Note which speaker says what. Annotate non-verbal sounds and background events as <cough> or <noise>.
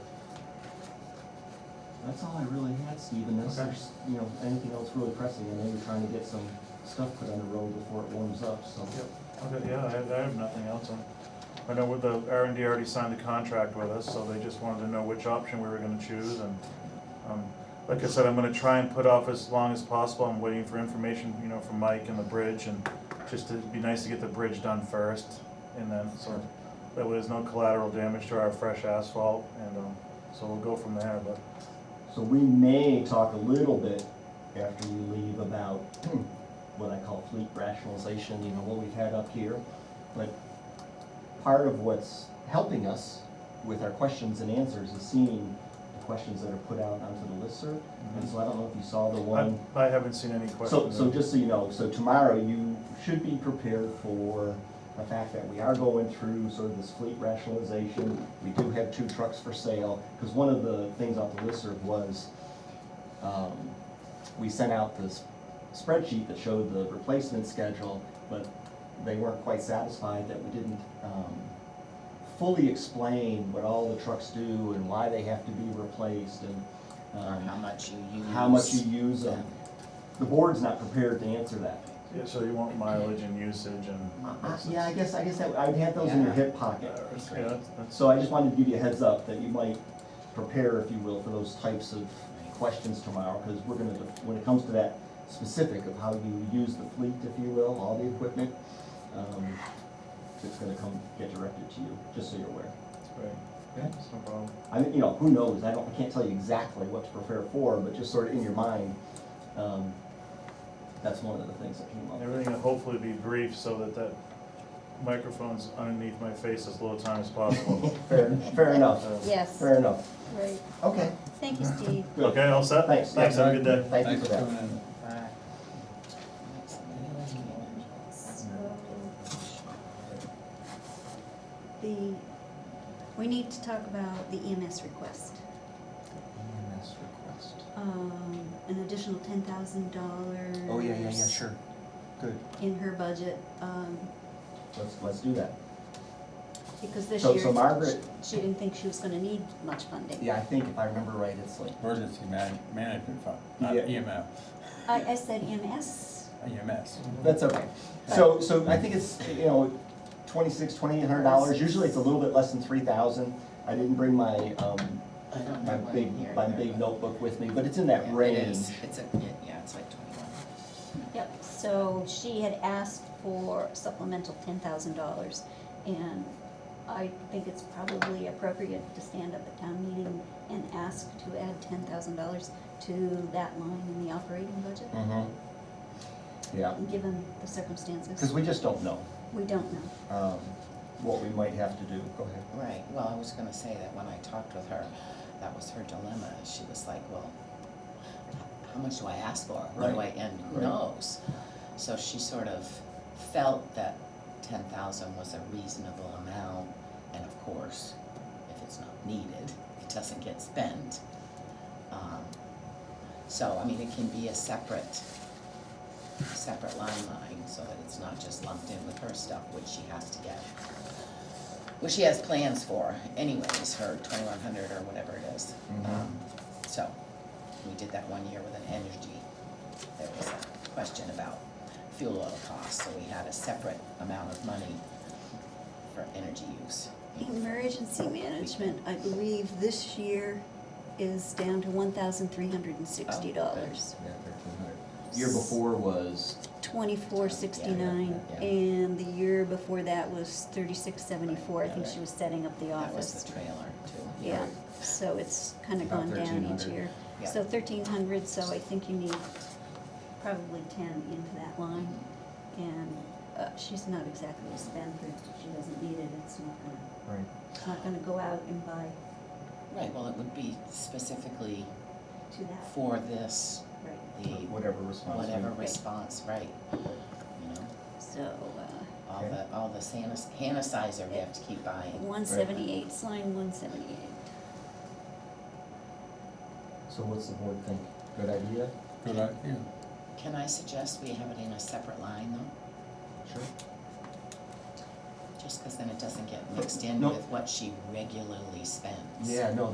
Speaker 1: That's all I really had, Steve, unless
Speaker 2: Okay.
Speaker 1: there's, you know, anything else really pressing. I know you're trying to get some stuff put on the road before it warms up, so.
Speaker 2: Yep, okay, yeah, I have, I have nothing else. I- I know with the, R and D already signed the contract with us, so they just wanted to know which option we were gonna choose and, um, like I said, I'm gonna try and put off as long as possible. I'm waiting for information, you know, from Mike and the bridge and just to, it'd be nice to get the bridge done first and then, so that way there's no collateral damage to our fresh asphalt and, um, so we'll go from there, but
Speaker 1: So we may talk a little bit after you leave about <clears throat> hmm, what I call fleet rationalization, you know, what we've had up here. But part of what's helping us with our questions and answers is seeing the questions that are put out onto the listserv. And so I don't know if you saw the
Speaker 2: Mm-hmm. I,
Speaker 1: one.
Speaker 2: I haven't seen any questions.
Speaker 1: So, so just so you know, so tomorrow you should be prepared for the fact that we are going through sort of this fleet rationalization. We do have two trucks for sale, because one of the things off the listserv was, um, we sent out this spreadsheet that showed the replacement schedule, but they weren't quite satisfied that we didn't, um, fully explain what all the trucks do and why they have to be replaced and,
Speaker 3: or how
Speaker 1: um,
Speaker 3: much you use.
Speaker 1: how much you use them. The board's not prepared to answer that.
Speaker 2: Yeah, so you want mileage and usage and.
Speaker 1: Uh, Yeah, I guess, I guess that, I'd have those in your hip pocket.
Speaker 2: Yeah, that's- that's.
Speaker 1: So I just wanted to give you a heads up that you might prepare, if you will, for those types of questions tomorrow, because we're gonna, when it comes to that specific of how you use the fleet, if you will, all the equipment, um, it's gonna come, get directed to you, just so you're aware.
Speaker 2: Right, yeah, that's no problem.
Speaker 1: I mean, you know, who knows, I don't, I can't tell you exactly what to prepare for, but just sort of in your mind, um, that's one of the things that came up.
Speaker 2: Everything will hopefully be brief so that that microphone's underneath my face as little time as
Speaker 1: <laughs>
Speaker 2: possible.
Speaker 1: <laughs>
Speaker 2: Uh,
Speaker 1: Fair, fair enough,
Speaker 4: Yes,
Speaker 1: fair enough.
Speaker 4: right.
Speaker 1: Okay,
Speaker 4: Thank you, Steve.
Speaker 1: good.
Speaker 2: Okay, all set?
Speaker 1: Thanks.
Speaker 2: Thanks, have a good day.
Speaker 1: Thank you for that.
Speaker 5: coming in.
Speaker 3: Uh,
Speaker 4: So, The, we need to talk about the EMS request.
Speaker 5: EMS E request.
Speaker 4: Um, an additional ten thousand dollars.
Speaker 5: Oh, yeah, yeah, yeah, sure. Good.
Speaker 4: In her budget, um,
Speaker 1: Let's, let's do that.
Speaker 4: because this
Speaker 1: So-
Speaker 4: year.
Speaker 1: so Margaret-
Speaker 4: She didn't think she was gonna need much funding.
Speaker 1: Yeah, I think if I remember right, it's like,
Speaker 5: Emergency man- management fund, not E
Speaker 1: Yeah.
Speaker 5: EMF,
Speaker 4: I, I said E EMS,
Speaker 5: EMS.
Speaker 1: that's okay. So, so I think it's, you know, twenty-six, twenty-eight hundred dollars, usually it's a little bit less than three thousand. I didn't bring my, um,
Speaker 3: I don't
Speaker 1: my
Speaker 3: know what
Speaker 1: big,
Speaker 3: in here.
Speaker 1: my big notebook with me, but it's in that
Speaker 3: Yeah,
Speaker 1: range.
Speaker 3: It is, it's a, yeah, yeah, it's like twenty-one.
Speaker 4: yep, so she had asked for supplemental ten thousand dollars. And I think it's probably appropriate to stand up at town meeting and ask to add ten thousand dollars to that line in the operating budget,
Speaker 1: Mm-hmm. Yeah,
Speaker 4: given the
Speaker 1: because
Speaker 4: circumstances.
Speaker 1: we just don't know,
Speaker 4: We don't know.
Speaker 1: um, what we might have to do. Go ahead.
Speaker 3: Right, well, I was gonna say that when I talked with her, that was her dilemma, she was like, well, how much do I ask for, what do I,
Speaker 1: Right,
Speaker 3: and who
Speaker 1: right.
Speaker 3: knows? So she sort of felt that ten thousand was a reasonable amount, and of course, if it's not needed, it doesn't get spent. Um, So, I mean, it can be a separate, separate line line, so that it's not just lumped in with her stuff, which she has to get. Which she has plans for anyways, her twenty-one hundred or whatever it is.
Speaker 1: Mhm.
Speaker 3: Um, So, we did that one year with an energy, there was a question about fuel oil costs, so we had a separate amount of money for energy use.
Speaker 4: Emergency management, I believe this year is down to one thousand three hundred and sixty dollars.
Speaker 1: Yeah, thirteen hundred. Year before was,
Speaker 4: Twenty-four sixty-nine,
Speaker 3: Yeah, yeah, yeah.
Speaker 4: and the year before that was thirty-six seventy-four. I
Speaker 3: Right,
Speaker 4: think
Speaker 3: right.
Speaker 4: she was setting up the
Speaker 3: That was
Speaker 4: office.
Speaker 3: the trailer too.
Speaker 4: Yeah, so it's kinda
Speaker 5: About
Speaker 4: gone down each
Speaker 5: 1,300.
Speaker 4: year.
Speaker 3: Yeah.
Speaker 4: So thirteen hundred, so I think you need probably ten into that line. And, uh, she's not exactly a spendthrift, she doesn't need it, it's not gonna,
Speaker 1: right,
Speaker 4: it's not gonna go out and buy
Speaker 3: Right, well, it would be specifically
Speaker 4: to that,
Speaker 3: for this,
Speaker 4: right?
Speaker 3: the
Speaker 1: whatever response. we-
Speaker 3: whatever response, right, you know,
Speaker 4: So, uh,
Speaker 3: all the, all the sanis- sanitizer we have to keep buying.
Speaker 4: one seventy-eight, line one seventy-eight.
Speaker 1: So what's the board think? Good idea?
Speaker 5: Good idea.
Speaker 3: Can I suggest we have it in a separate line though,
Speaker 1: Sure.
Speaker 3: just because then it doesn't get mixed in
Speaker 1: No.
Speaker 3: with what she regularly spends?
Speaker 1: Yeah, no,